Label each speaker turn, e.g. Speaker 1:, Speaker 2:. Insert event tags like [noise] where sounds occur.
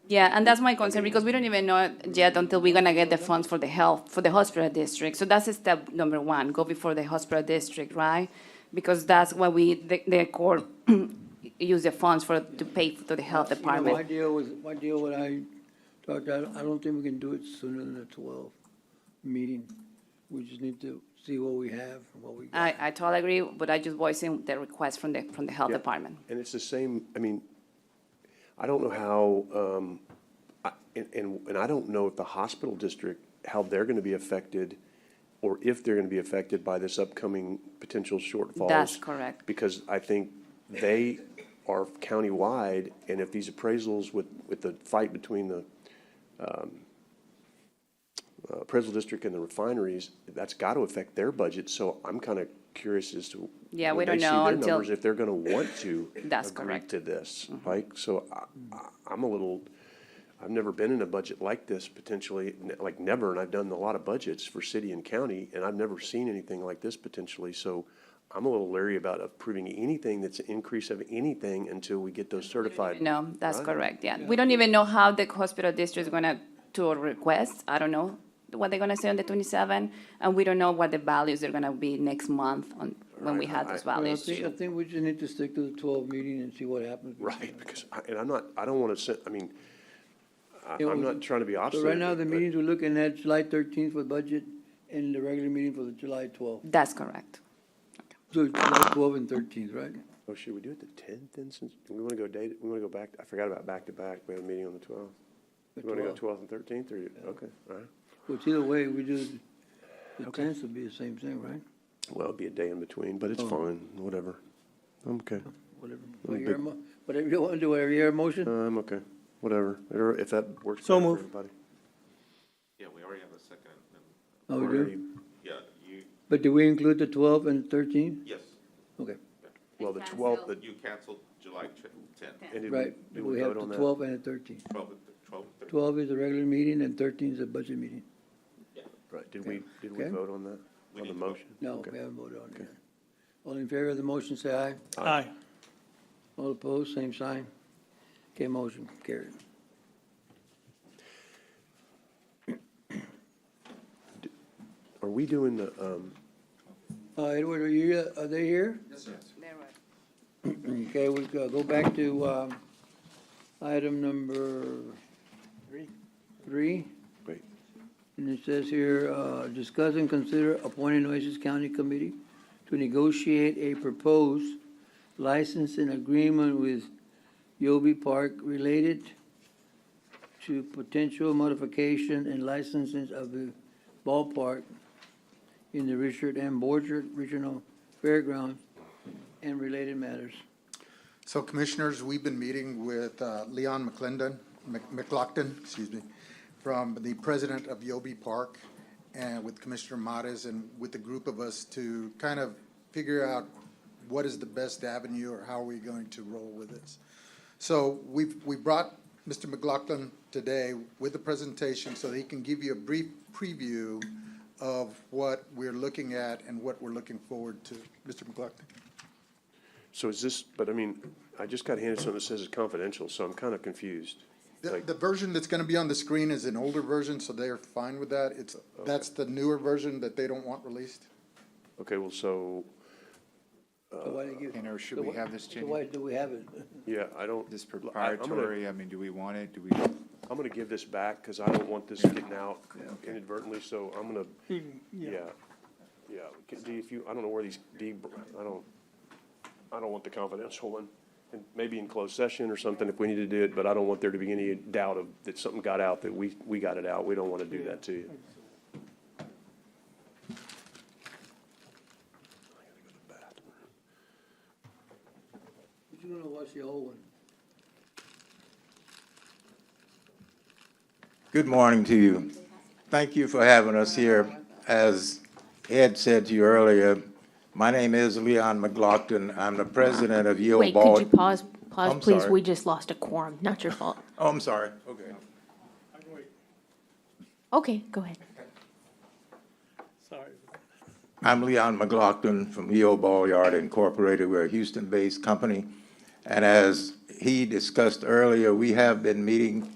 Speaker 1: Yeah, and that's my concern because we don't even know yet until we're gonna get the funds for the health, for the hospital district. So that's step number one, go before the hospital district, right? Because that's what we, the, the court [clears throat] use the funds for, to pay to the health
Speaker 2: You know, My
Speaker 1: department.
Speaker 2: deal was, my deal when I talked, I, I don't think we can do it sooner than the twelve meeting. We just need to see what we have and what we got.
Speaker 1: I, I totally agree, but I just voicing the request from the, from the health
Speaker 3: Yeah.
Speaker 1: department.
Speaker 3: And it's the same, I mean, I don't know how, um, I- and, and, and I don't know if the hospital district, how they're gonna be affected or if they're gonna be affected by this upcoming potential shortfalls.
Speaker 1: That's correct.
Speaker 3: Because I think they are countywide and if these appraisals with, with the fight between the, um, uh, appraisal district and the refineries, that's gotta affect their budget, so I'm kinda curious as to.
Speaker 1: Yeah, we
Speaker 3: when they
Speaker 1: don't
Speaker 3: see
Speaker 1: know
Speaker 3: their
Speaker 1: until-
Speaker 3: numbers, If they're gonna want to.
Speaker 1: [coughs] That's
Speaker 3: agree
Speaker 1: correct. Mm-hmm.
Speaker 3: To this, like, so I, I, I'm a little, I've never been in a budget like this potentially, n- like never, and I've done a lot of budgets for city and county, and I've never seen anything like this potentially, so I'm a little leery about approving anything that's an increase of anything until we get those certified.
Speaker 1: No, that's
Speaker 3: Right.
Speaker 1: correct, yeah. We don't even know how the hospital district is gonna, to a request, I don't know what they're gonna say on the twenty-seven, and we don't know what the values are gonna be next month on, when we
Speaker 3: Right,
Speaker 1: have
Speaker 3: I-
Speaker 1: those
Speaker 3: I-
Speaker 2: But I
Speaker 1: values.
Speaker 2: think, I think we just need to stick to the twelve meeting and see what happens.
Speaker 3: Right, because, I- and I'm not, I don't wanna send, I mean, I,
Speaker 2: Yeah,
Speaker 3: I'm
Speaker 2: well,
Speaker 3: not trying to be
Speaker 2: So
Speaker 3: obstinate.
Speaker 2: right now, the
Speaker 3: but-
Speaker 2: meetings we're looking at July thirteenth for budget and the regular meeting for the July twelfth.
Speaker 1: That's correct.
Speaker 2: So it's July twelve and thirteenth, right?
Speaker 3: Oh, should we do it the tenth then, since, we wanna go date, we wanna go back, I forgot about back-to-back, we have a meeting on the twelfth.
Speaker 2: The
Speaker 3: You wanna go
Speaker 2: 12th.
Speaker 3: twelfth and thirteenth, or, you- okay, all right.
Speaker 2: Which either way, we do, the tenth would be the same thing, right?
Speaker 3: Well, it'd be a day in between, but it's
Speaker 2: Oh.
Speaker 3: fine, whatever. I'm okay.
Speaker 2: Whatever,
Speaker 3: big-
Speaker 2: whatever, mo- whatever you want to do, whatever your motion.
Speaker 3: Uh, I'm okay, whatever, Whatever- if that works
Speaker 4: So
Speaker 3: better for
Speaker 4: moved.
Speaker 3: everybody.
Speaker 5: Yeah, we already have a second, and,
Speaker 2: Oh, we
Speaker 3: Or
Speaker 2: do?
Speaker 3: you-
Speaker 5: yeah, you,
Speaker 2: But do we include the twelve and thirteen?
Speaker 5: yes,
Speaker 2: Okay,
Speaker 3: Well, the
Speaker 1: Cancel.
Speaker 3: twelfth, the,
Speaker 5: you canceled July tenth,
Speaker 3: and did
Speaker 2: right,
Speaker 3: we, did
Speaker 2: we
Speaker 3: we
Speaker 2: have
Speaker 3: vote
Speaker 2: the
Speaker 3: on that?
Speaker 2: twelve and the thirteen.
Speaker 5: twelve, twelve, thirteen.
Speaker 2: Twelve is a regular meeting and thirteen is a budget meeting.
Speaker 3: Right, did we, did we
Speaker 2: Okay.
Speaker 3: vote on that, on the
Speaker 5: We need to vote.
Speaker 3: motion?
Speaker 2: No,
Speaker 3: Okay.
Speaker 2: we haven't voted on it. yet. All in favor of the motion, say aye.
Speaker 4: Aye.
Speaker 2: All opposed, same sign. Okay, motion carried.
Speaker 3: Are we doing the, um,
Speaker 2: Uh, Edward, are you, uh, are they here? [clears throat] Okay, we go go back to, um, item number. Three. Three.
Speaker 3: wait,
Speaker 2: And it says here, uh, discuss and consider appointing Oasis County Committee to negotiate a proposed license and agreement with Yobi Park related to potential modification and licenses of the ballpark in the Richard M. Borchard Regional Fairgrounds and related matters.
Speaker 6: So Commissioners, we've been meeting with uh, Leon McClendon, Mc- McLaughlin, excuse me, from the president of Yobi Park and with Commissioner Mares and with the group of us to kind of figure out what is the best avenue or how are we going to roll with this. So we've, we brought Mr. McLaughlin today with a presentation so that he can give you a brief preview of what we're looking at and what we're looking forward to. Mr. McLaughlin?
Speaker 3: so is this, but I mean, I just got handed something that says it's confidential, so I'm kinda confused.
Speaker 6: The,
Speaker 3: Like-
Speaker 6: the version that's gonna be on the screen is an older version, so they're fine with that. It's, that's the newer version that they don't want released.
Speaker 3: Okay, well, so,
Speaker 2: So why do you give-
Speaker 7: And or Uh, should
Speaker 2: so
Speaker 7: we
Speaker 2: why-
Speaker 7: have this,
Speaker 2: so
Speaker 7: Jenny?
Speaker 2: Why do we have it?
Speaker 3: yeah, I don't.
Speaker 7: This
Speaker 3: I- I'm gonna-
Speaker 7: proprietary, I mean, do we want it? Do we,
Speaker 3: I'm gonna give this back, cause I don't want this getting out inadvertently, so I'm gonna, yeah, yeah. 'Cause D, if you, I don't know where these, D, I don't, I don't want the confidential one. And maybe in closed session or something if we need to do it, but I don't want there to be any doubt of, that something got out, that we, we got it out. We don't wanna do that to you.
Speaker 2: You're gonna watch the whole one.
Speaker 8: Good morning to you. Thank you for having us here. As Ed said to you earlier, my name is Leon McLaughlin. I'm the president of Yale
Speaker 9: Wait, could
Speaker 8: Ball.
Speaker 9: you pause, pause,
Speaker 8: I'm
Speaker 9: please?
Speaker 8: sorry.
Speaker 9: We just lost a quorum. Not your fault.
Speaker 8: Oh, I'm sorry. Okay.
Speaker 9: Okay, go ahead.
Speaker 4: Sorry.
Speaker 8: I'm Leon McLaughlin from EO Ball Yard Incorporated. We're a Houston-based company. And as he discussed earlier, we have been meeting